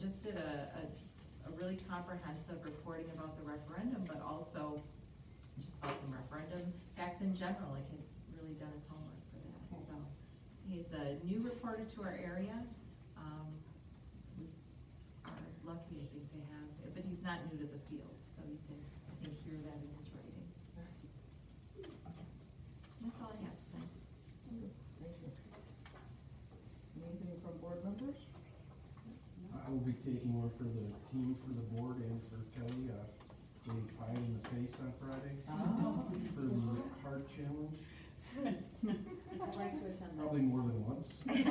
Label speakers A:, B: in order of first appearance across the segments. A: did a, a, a really comprehensive reporting about the referendum, but also just about some referendum facts in general, like had really done his homework for that, so. He's a new reporter to our area, um, we are lucky, I think, to have, but he's not new to the field, so you can, I think, hear that in his writing. That's all I have tonight.
B: Thank you. Anything from board members?
C: I will be taking one for the team, for the board, and for Kelly, uh, getting pie in the face on Friday
B: Oh.
C: for the heart challenge,
D: I'd like to attend that.
C: probably more than once.
A: That's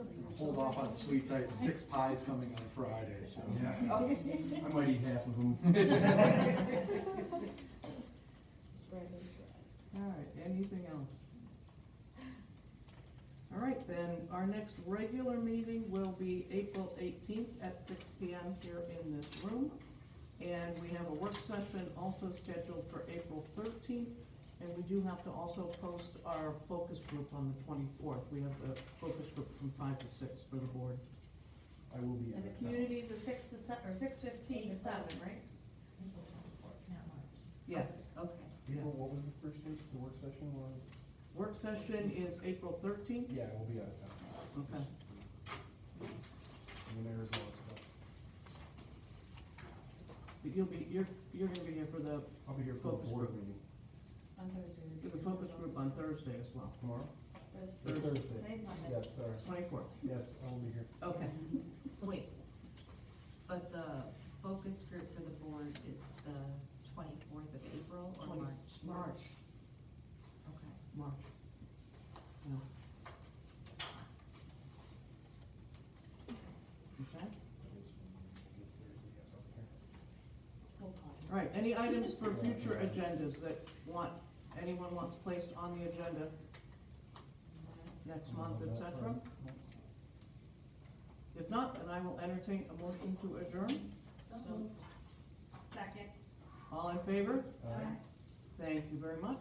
A: excellent.
E: Hold off on sweets, I have six pies coming on Friday, so.
C: Yeah, I might eat half of them.
B: All right, anything else? All right, then, our next regular meeting will be April eighteenth at six P M here in this room. And we have a work session also scheduled for April thirteenth, and we do have to also post our focus group on the twenty-fourth. We have the focus group from five to six for the board.
C: I will be. out
D: And the
C: of town.
D: community is a six to seven, or six fifteen to seven, right?
B: Yes.
A: Okay.
C: April, what was the first date, the work session was?
B: Work session is April thirteenth.
C: Yeah, I will be out of town.
B: Okay.
C: I'm in Arizona, so
B: But you'll be, you're, you're gonna be here for the,
C: I'll be here for the
B: Focus
C: board
B: group.
C: meeting
D: On Thursday.
B: for the focus group on Thursday as well,
C: tomorrow,
D: This-
C: or Thursday.
D: Today's Monday.
C: Yes, sorry,
B: twenty-fourth.
C: yes, I will be here.
B: Okay.
A: Wait, but the focus group for the board is the twenty-fourth of April or
B: Twenty-
A: March?
B: March.
A: Okay.
B: March. No. Okay,
D: We'll call it.
B: all right, any items for future agendas that want, anyone wants placed on the agenda next month, et cetera? If not, then I will entertain a motion to adjourn.
D: Second.
B: All in favor?
C: Uh,
B: Thank you very much.